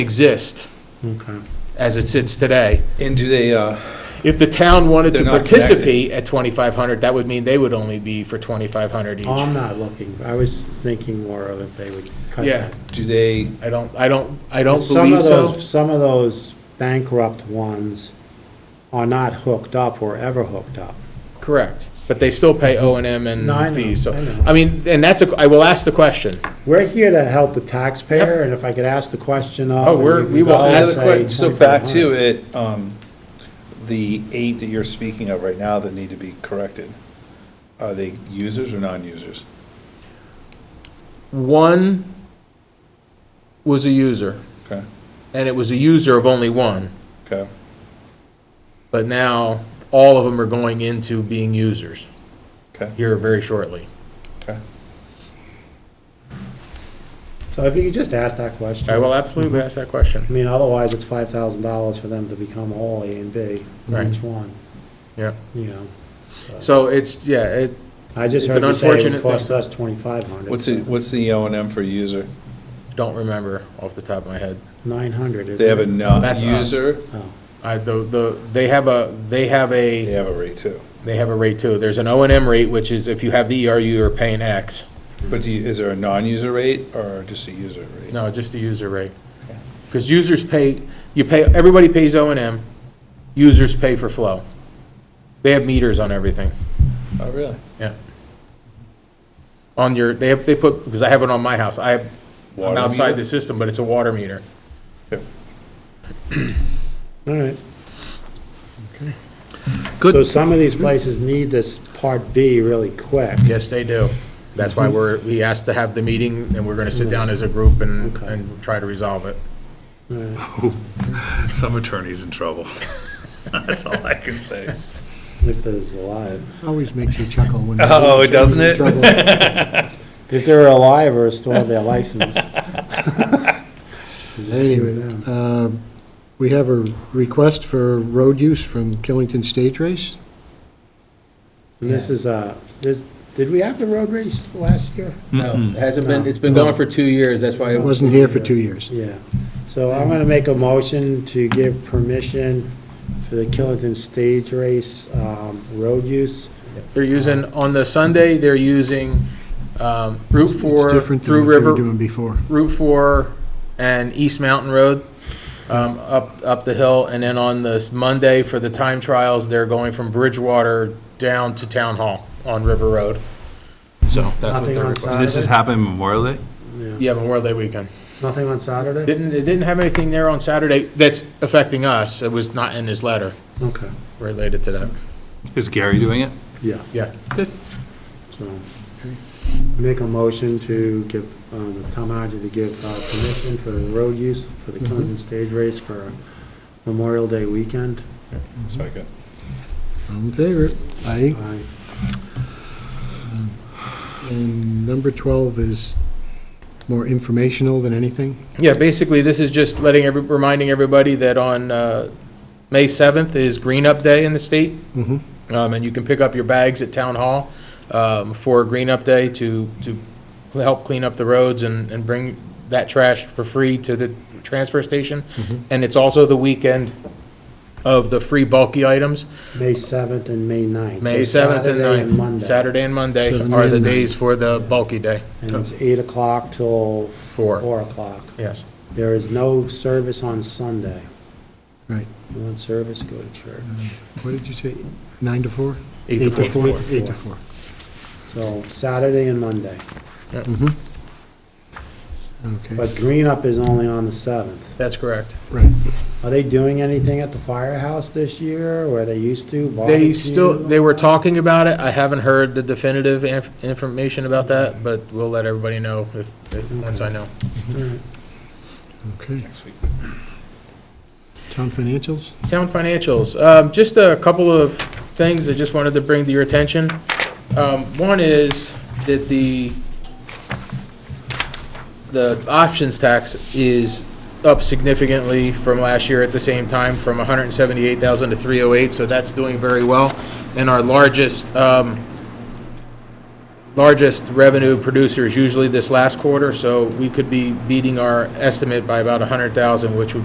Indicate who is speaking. Speaker 1: exist
Speaker 2: Okay.
Speaker 1: as it sits today.
Speaker 3: And do they, uh,
Speaker 1: If the town wanted to
Speaker 3: They're not
Speaker 1: participate at 2,500, that would mean they would only be for 2,500 each.
Speaker 2: Oh, I'm
Speaker 1: I
Speaker 2: not looking, I was thinking more of if they would cut
Speaker 1: Yeah.
Speaker 2: that.
Speaker 3: do they,
Speaker 1: don't, I don't, I don't
Speaker 2: Some
Speaker 1: believe
Speaker 2: of
Speaker 1: so.
Speaker 2: those, some of those bankrupt ones are not hooked up or ever hooked up.
Speaker 1: Correct. But they still pay O and M
Speaker 2: No, I
Speaker 1: and
Speaker 2: know,
Speaker 1: fees, so.
Speaker 2: I know.
Speaker 1: I mean, and that's, a. I will ask the question.
Speaker 2: We're here to help the taxpayer, and if I could ask the question of.
Speaker 1: Oh, we're- we will
Speaker 3: so
Speaker 1: ask-
Speaker 3: another que- so back to it, um, the eight that you're speaking of right now that need to be corrected, are they users or non-users?
Speaker 1: One was a user,
Speaker 3: Okay,
Speaker 1: and it was a user of only one.
Speaker 3: okay,
Speaker 1: But now, all of them are going into being users
Speaker 3: okay,
Speaker 1: here very shortly.
Speaker 3: okay.
Speaker 2: So if you could just ask that question.
Speaker 1: I will absolutely ask that question.
Speaker 2: I mean, otherwise, it's five thousand dollars for them to become all A and B,
Speaker 1: Right.
Speaker 2: each one,
Speaker 1: Yeah.
Speaker 2: you know.
Speaker 1: So it's, yeah, it,
Speaker 2: I just
Speaker 1: It's
Speaker 2: heard
Speaker 1: an
Speaker 2: you say it
Speaker 1: unfortunate
Speaker 2: would cost us twenty-five hundred.
Speaker 3: What's the, what's the O and M for user?
Speaker 1: don't remember off the top of my head.
Speaker 2: Nine hundred, isn't it?
Speaker 3: They have a
Speaker 1: That's us.
Speaker 3: non-user,
Speaker 2: Oh,
Speaker 1: I, the, the, they have a, they have
Speaker 3: they
Speaker 1: a,
Speaker 3: have a rate too.
Speaker 1: they have a rate too. There's an O and M rate, which is if you have the ERU, you're paying X.
Speaker 3: But do you, is there a non-user rate or just a user rate?
Speaker 1: No, just the user rate. Because users pay, you pay, everybody pays O and M, users pay for flow. They have meters on everything,
Speaker 3: Oh, really?
Speaker 1: yeah. On your, they have, they put, because I have it on my house, I have, I'm
Speaker 3: Water
Speaker 1: outside
Speaker 3: meter?
Speaker 1: the system, but it's a water meter.
Speaker 2: all right.
Speaker 1: Good.
Speaker 2: So some of these places need this Part B really quick.
Speaker 1: Yes, they do. That's why we're, we asked to have the meeting, and we're gonna sit down as a group and,
Speaker 2: Okay.
Speaker 1: and try to resolve it.
Speaker 2: All right.
Speaker 3: Some attorney's in trouble. That's all I can say.
Speaker 2: If there's alive.
Speaker 4: Always makes you chuckle when.
Speaker 3: Oh, doesn't it?
Speaker 4: it?
Speaker 2: If they're alive or still have their license.
Speaker 4: Anyway, uh, we have a request for road use from Killington Stage Race.
Speaker 2: And this is, uh, this, did we have the road race last year?
Speaker 1: No, it hasn't
Speaker 2: been-
Speaker 1: it's been
Speaker 4: gone
Speaker 1: for two years, that's why.
Speaker 4: I wasn't here for two years.
Speaker 2: Yeah. So I'm gonna make a motion to give permission for the Killington Stage Race, um, road use.
Speaker 1: They're using, on the Sunday, they're using, um, Route
Speaker 4: It's
Speaker 1: Four,
Speaker 4: different than
Speaker 1: through
Speaker 4: what they were
Speaker 1: River,
Speaker 4: doing before.
Speaker 1: Route Four and East Mountain Road, um, up, up the hill, and then on this Monday for the time trials, they're going from Bridgewater down to Town Hall on River Road. So that's what
Speaker 2: Nothing
Speaker 1: they're
Speaker 2: on
Speaker 1: requesting.
Speaker 2: Saturday?
Speaker 5: This has happened Memorial Day?
Speaker 2: Yeah.
Speaker 1: Yeah, Memorial Day weekend.
Speaker 2: Nothing on Saturday?
Speaker 1: Didn't, it didn't have anything there on Saturday that's affecting us. It was not in his letter
Speaker 2: Okay,
Speaker 1: related to that.
Speaker 5: Is Gary doing it?
Speaker 2: yeah.
Speaker 1: Yeah.
Speaker 2: So, make a motion to give, um, Tom Hodge to give uh, permission for the road use for the
Speaker 1: Mm-hmm.
Speaker 2: Killington Stage Race for Memorial Day weekend.
Speaker 3: Second.
Speaker 4: All in favor? Aye.
Speaker 2: I
Speaker 4: And number 12 is more informational than anything.
Speaker 1: Yeah, basically, this is just letting every, reminding everybody that on, uh, May seventh is Green Up Day in the state.
Speaker 4: Mhm.
Speaker 1: Um, and you can pick up your bags at Town Hall, um, for Green Up Day to, to help clean up the roads and, and bring that trash for free to the transfer station. And it's also the weekend of the free bulky items.
Speaker 2: May 7th and May 9th.
Speaker 1: May
Speaker 2: So
Speaker 1: 7th and
Speaker 2: Saturday
Speaker 1: 9th.
Speaker 2: Monday.
Speaker 1: Saturday and Monday
Speaker 4: Saturday
Speaker 1: are the
Speaker 4: and
Speaker 1: days for the bulky day,
Speaker 2: And it's 8 o'clock till
Speaker 1: Four.
Speaker 2: 4 o'clock.
Speaker 1: yes.
Speaker 2: There is no service on Sunday.
Speaker 4: Right.
Speaker 2: You want service, go to church.
Speaker 1: Mm-hmm.
Speaker 4: What did you say? Nine to four?
Speaker 1: Eight to four.
Speaker 4: Eight to four.
Speaker 2: So Saturday and Monday.
Speaker 4: Mm-hmm. Okay,
Speaker 2: But Green Up is only on the 7th.
Speaker 1: That's correct.
Speaker 4: right.
Speaker 2: Are they doing anything at the firehouse this year, where they used to?
Speaker 1: They
Speaker 2: barbecue?
Speaker 1: still, they were talking about it, I haven't heard the definitive inf- information about that, but we'll let everybody know if, if- once I know.
Speaker 4: Okay. Town financials?
Speaker 1: Town financials, um, just a couple of things I just wanted to bring to your attention. Um, one is that the, the options tax is up significantly from last year at the same time, from hundred and seventy-eight thousand to three oh eight, so that's doing very well. And our largest, um, largest revenue producer is usually this last quarter, so we could be beating our estimate by about 100,000, which would